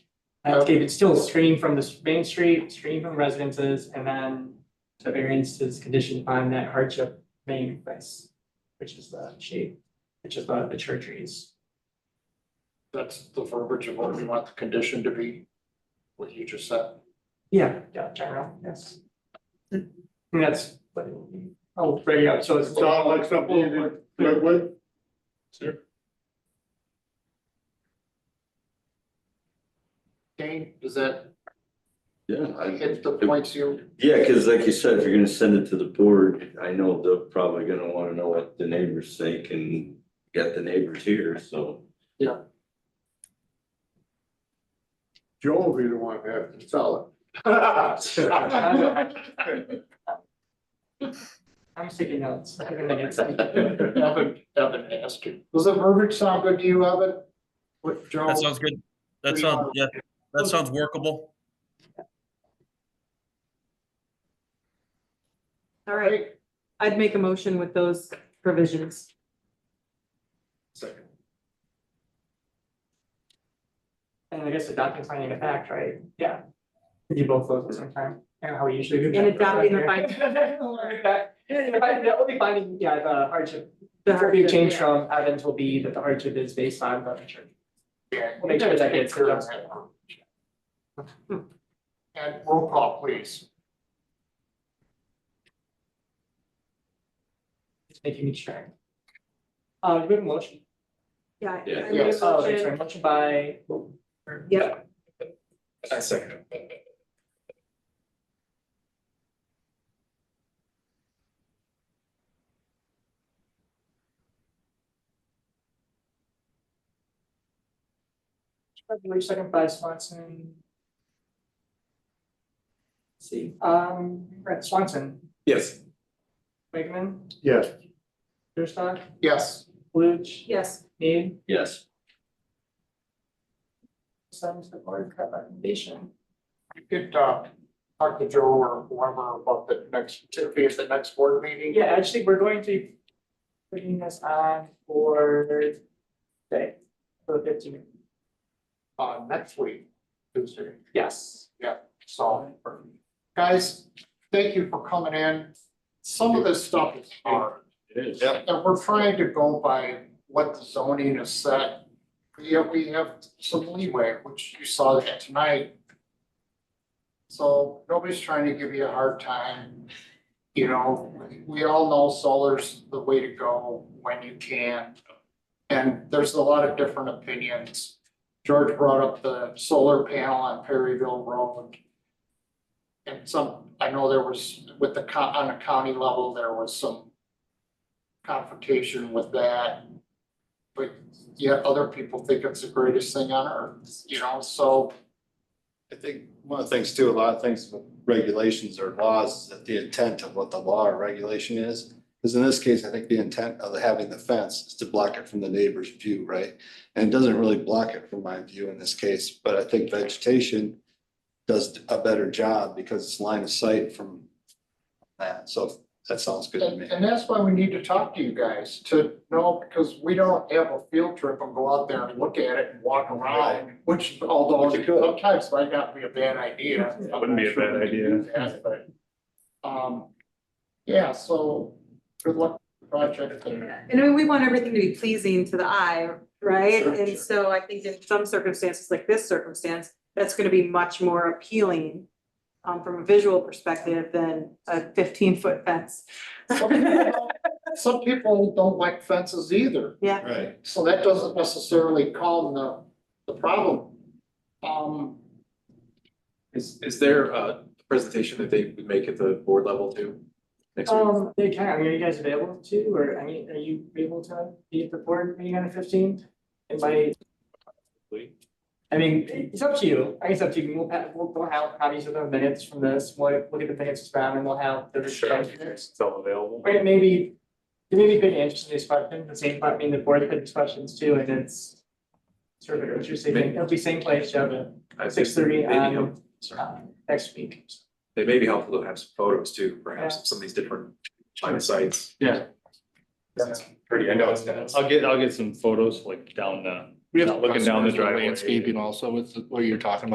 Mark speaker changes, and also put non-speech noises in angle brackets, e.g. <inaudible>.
Speaker 1: landscape, it's still stream from the main street, stream from residences, and then the variance is conditioned on that hardship main place, which is the shape, which is the, the church trees.
Speaker 2: That's the verbiage of what we want the condition to be, what you just said.
Speaker 1: Yeah, yeah, general, yes. And that's, what it would be. oh, right, yeah, so it's.
Speaker 3: Sound like something you did- Wait, wait.
Speaker 2: Dane, does that
Speaker 4: Yeah, I,
Speaker 2: hit the points you,
Speaker 4: yeah, cause like you said, if you're gonna send it to the board, I know they're probably gonna wanna know what the neighbors think and get the neighbors here, so.
Speaker 3: Joe will be the one that has to sell
Speaker 1: I'm taking notes. I'm gonna get some.
Speaker 2: Evan, Evan asked you? Does the verbiage sound good to you, Evan? What Joe?
Speaker 5: That sounds good. That
Speaker 2: Three
Speaker 5: sounds,
Speaker 2: hours.
Speaker 5: yeah, that sounds workable.
Speaker 6: All right, I'd make a motion with those provisions.
Speaker 2: Second.
Speaker 1: And I guess adopting finding a fact, right? Yeah. We Do both those at the same time, and how we usually do. that.
Speaker 6: And adopting the finding-
Speaker 1: Yeah, if I- That would be finding, yeah, the hardship. The
Speaker 6: The
Speaker 1: big
Speaker 6: hardship,
Speaker 1: change
Speaker 6: yeah.
Speaker 1: from Evans will be that the hardship is based on the church. We'll make sure that gets addressed.
Speaker 2: And roll call, please.
Speaker 1: Just making me sure. Uh, do we have a motion?
Speaker 6: Yeah.
Speaker 4: Yeah.
Speaker 6: I make a
Speaker 1: Oh, that's
Speaker 6: motion.
Speaker 1: right, motion by.
Speaker 6: Yep.
Speaker 7: I second.
Speaker 1: Second, second by Swanson. Let's See, um, right, Swanson,
Speaker 7: Yes.
Speaker 1: Wakeman,
Speaker 3: it. Yes,
Speaker 1: Durstock,
Speaker 2: Yes,
Speaker 1: Luge,
Speaker 6: Yes,
Speaker 1: Need,
Speaker 4: Yes.
Speaker 1: send to the board, cut recommendation.
Speaker 2: you could, uh, talk to Joe or whoever about the next, if it's the next board meeting.
Speaker 1: Yeah, actually, we're going to be putting this on for today, for the fifteen,
Speaker 2: Uh, next week, Tuesday.
Speaker 1: yes.
Speaker 2: So, guys, thank you for coming in. Some of this stuff is hard,
Speaker 4: It is.
Speaker 2: and we're trying to go by what the zoning is set. Yet we have some leeway, which you saw that tonight. So nobody's trying to give you a hard time. You know, we all know solar's the way to go when you can. And there's a lot of different opinions. George brought up the solar panel on Perryville Road. And some, I know there was with the co- on a county level, there was some confrontation with that. But yet other people think it's the greatest thing on earth, you know, so
Speaker 8: I think one of the things too, a lot of things with regulations or laws, is that the intent of what the law or regulation is. Because in this case, I think the intent of having the fence is to block it from the neighbor's view, right? And it doesn't really block it from my view in this case, but I think vegetation does a better job because it's line of sight from that. So that sounds good to
Speaker 2: and
Speaker 8: me.
Speaker 2: and that's why we need to talk to you guys to know, because we don't have a field trip and go out there and look at it and walk around. Which although
Speaker 8: Which you could.
Speaker 2: sometimes might not be a bad idea. I'm
Speaker 7: Wouldn't be
Speaker 2: not
Speaker 7: a
Speaker 2: sure
Speaker 7: bad
Speaker 2: we can do that, But um, yeah, so good luck with the project and
Speaker 6: <laughs> and I mean, we want everything to be pleasing to the eye, right?
Speaker 8: Sure,
Speaker 6: And
Speaker 8: sure.
Speaker 6: so I think in some circumstances, like this circumstance, that's gonna be much more appealing um, from a visual perspective than a fifteen foot fence. <laughs>
Speaker 2: some people, some people don't like fences either.
Speaker 8: Right.
Speaker 2: So that doesn't necessarily calm the, the problem. Um,
Speaker 7: Is, is there a presentation that they would make at the board level too? Next week?
Speaker 1: Um, they can, are you guys available to, or I mean, are you able to be at the board meeting on the fifteenth? And by, I mean, it's up to you, I guess it's up to you, we'll, pa- we'll, we'll have copies of the minutes from this, we'll, we'll get the minutes from, and we'll have the.
Speaker 7: Sure. It's all available.
Speaker 1: Or it maybe, it maybe been interesting discussion, the same, part. I mean, the board had discussions too, and it's sort of interesting, it'll be same place, Joe,
Speaker 7: I think
Speaker 1: six thirty
Speaker 7: maybe
Speaker 1: on,
Speaker 7: sorry.
Speaker 1: uh, next week.
Speaker 7: It may be helpful to have some photos too, perhaps, of some of these different China sites.
Speaker 9: Yeah.
Speaker 7: That's Pretty, I know it's kind of.
Speaker 9: I'll get, I'll get some photos like down the,
Speaker 7: We have
Speaker 9: looking down the
Speaker 7: customers with
Speaker 9: driveway.
Speaker 7: landscaping
Speaker 9: also with what you're talking about.